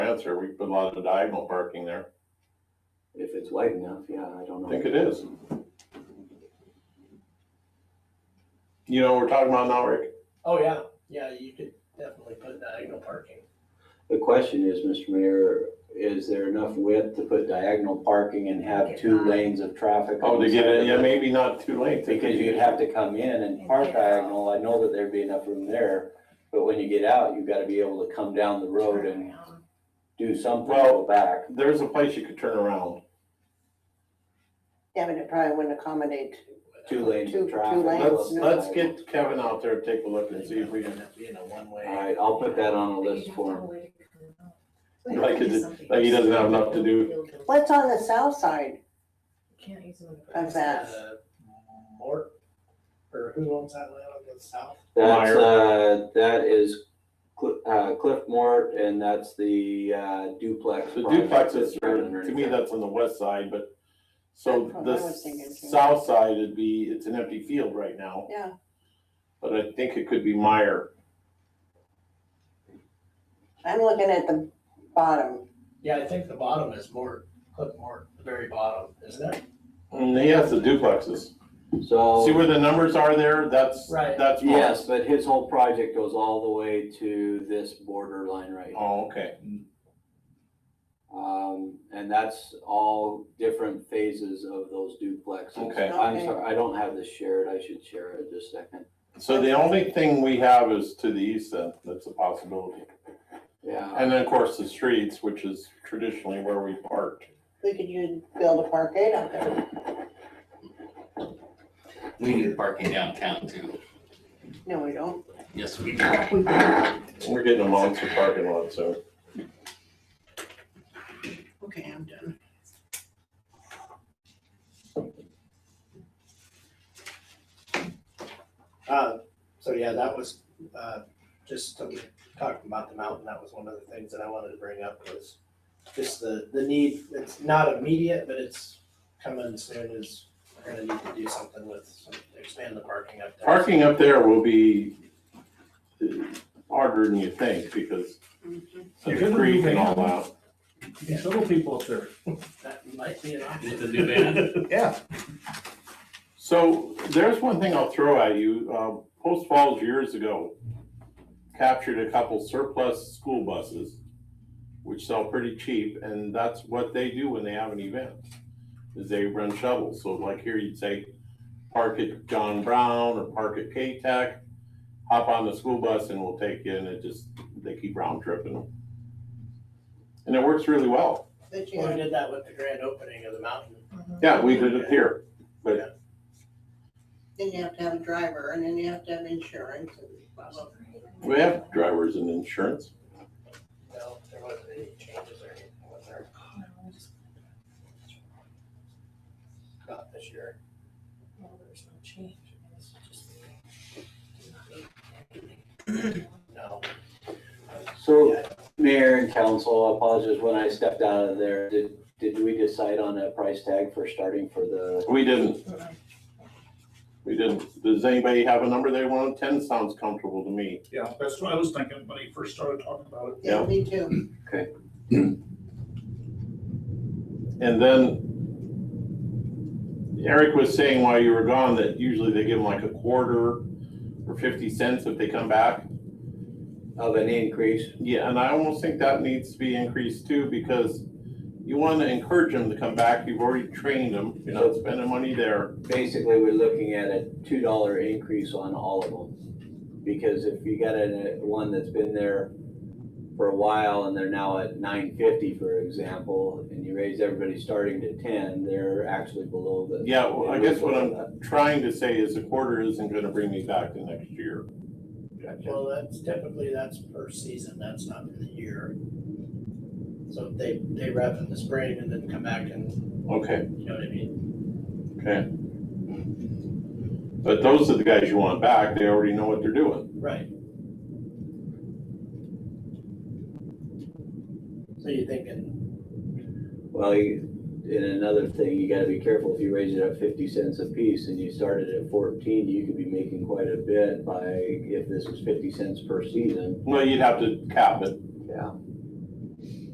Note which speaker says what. Speaker 1: fence there, we put a lot of diagonal parking there.
Speaker 2: If it's wide enough, yeah, I don't
Speaker 1: I
Speaker 2: know.
Speaker 1: think it is. You know, we're talking about now, Rick,
Speaker 3: Oh, yeah, yeah, you could definitely put diagonal parking.
Speaker 2: The question is, Mr. Mayor, is there enough width to put diagonal parking and have two lanes of traffic? on
Speaker 1: oh, to
Speaker 2: the
Speaker 1: get
Speaker 2: side
Speaker 1: in,
Speaker 2: of
Speaker 1: yeah,
Speaker 2: it?
Speaker 1: maybe not too late.
Speaker 2: Because you'd have to come in and park diagonal, I know that there'd be enough room there, but when you get out, you've gotta be able to come down the road
Speaker 4: Um,
Speaker 2: and do something to
Speaker 1: Well-
Speaker 2: go back.
Speaker 1: There's a place you could turn around.
Speaker 5: Yeah, but it probably wouldn't accommodate.
Speaker 2: Two lanes
Speaker 5: Two-
Speaker 2: of
Speaker 5: two
Speaker 2: traffic.
Speaker 5: lanes,
Speaker 1: Let's,
Speaker 5: no.
Speaker 1: let's get Kevin out there, take a look and see if we can,
Speaker 3: You know, one way.
Speaker 2: Alright, I'll put that on a list for him.
Speaker 1: Like it- like he doesn't have enough to do.
Speaker 5: What's on the south side?
Speaker 4: Can't use them. in the-
Speaker 5: How's that?
Speaker 3: Uh, Mort, or who owns that land on the south?
Speaker 2: That's,
Speaker 1: Meyer.
Speaker 2: uh, that is Cl- uh, Cliff Mort and that's the uh, duplex.
Speaker 1: the
Speaker 2: project
Speaker 1: duplex is,
Speaker 2: right underneath
Speaker 1: to me,
Speaker 2: that.
Speaker 1: that's on the west side, but, so
Speaker 5: That's what
Speaker 1: the
Speaker 5: I was thinking too.
Speaker 1: south side would be, it's an empty field right now,
Speaker 5: Yeah,
Speaker 1: but I think it could be Meyer.
Speaker 5: I'm looking at the bottom.
Speaker 3: Yeah, I think the bottom is Mort, Clip Mort, the very bottom, isn't it?
Speaker 1: And he has the duplexes.
Speaker 2: So.
Speaker 1: See where the numbers are there? That's,
Speaker 3: Right.
Speaker 1: that's more.
Speaker 2: Yes, but his whole project goes all the way to this borderline right here.
Speaker 1: Oh, okay.
Speaker 2: Um, and that's all different phases of those duplexes.
Speaker 1: Okay.
Speaker 2: I'm
Speaker 5: Okay.
Speaker 2: sorry, I don't have this shared, I should share it in just a second.
Speaker 1: So the only thing we have is to the east then, that's a possibility.
Speaker 2: Yeah,
Speaker 1: And then, of course, the streets, which is traditionally where we parked.
Speaker 5: We could use, build a parkade out there.
Speaker 6: We need parking downtown too.
Speaker 5: No, we don't.
Speaker 6: Yes, we
Speaker 1: We're getting a monster parking lot, so.
Speaker 5: Okay, I'm done.
Speaker 3: Uh, so yeah, that was, uh, just um, talking about the mountain, that was one of the things that I wanted to bring up was just the, the need, it's not immediate, but it's coming soon is we're gonna need to do something with, some- expand the parking up there.
Speaker 1: Parking up there will be uh, harder than you think because of the creek and all that.
Speaker 7: These little people up there.
Speaker 3: That might be an option.
Speaker 6: It's a new van.
Speaker 7: Yeah.
Speaker 1: So there's one thing I'll throw at you. Uh, Post Falls years ago captured a couple surplus school buses, which sell pretty cheap, and that's what they do when they have an event, is they run shovels. So like here, you'd say, park at John Brown or park at K-Tech, hop on the school bus and we'll take you, and it just, they keep round tripping them. And it works really well.
Speaker 5: But you
Speaker 3: Well, We
Speaker 5: have
Speaker 3: did that with the grand opening of the mountain.
Speaker 1: Yeah, we did it here.
Speaker 5: Then you have to have a driver and then you have to have insurance and blah, blah, blah.
Speaker 1: We have drivers and insurance.
Speaker 3: No, there wasn't any changes or anything, was there,
Speaker 4: No, just-
Speaker 3: not this year?
Speaker 4: no, there's no change. It's just-
Speaker 3: No.
Speaker 2: so mayor and council, I apologize when I stepped out of there. Did, did we decide on a price tag for starting for the?
Speaker 1: We didn't. We didn't. Does anybody have a number they want? Ten sounds comfortable to me.
Speaker 7: Yeah, that's what I was thinking when he first started talking about it.
Speaker 5: Yeah,
Speaker 1: Yeah.
Speaker 5: me too.
Speaker 1: And then Eric was saying while you were gone that usually they give them like a quarter or fifty cents if they come back.
Speaker 2: Of an increase?
Speaker 1: Yeah, and I almost think that needs to be increased too because you want to encourage them to come back. You've already trained them. You're not spending money there.
Speaker 2: Basically, we're looking at a two dollar increase on all of them. Because if you got a, one that's been there for a while and they're now at nine fifty, for example, and you raise everybody starting to ten, they're actually below the.
Speaker 1: Yeah, well, I guess what I'm trying to say is a quarter isn't going to bring me back to next year.
Speaker 3: Well, that's typically, that's per season, that's not for the year. So if they, they wrap in the spring and then come back and,
Speaker 1: Okay.
Speaker 3: you know what I mean?
Speaker 1: Okay. But those are the guys you want back, they already know what they're doing.
Speaker 3: Right. So you're thinking,
Speaker 2: Well, you- and another thing, you gotta be careful, if you raise it at fifty cents a piece and you started at fourteen, you could be making quite a bit by, if this was fifty cents per season.
Speaker 1: Well, you'd have to cap it.
Speaker 2: Yeah.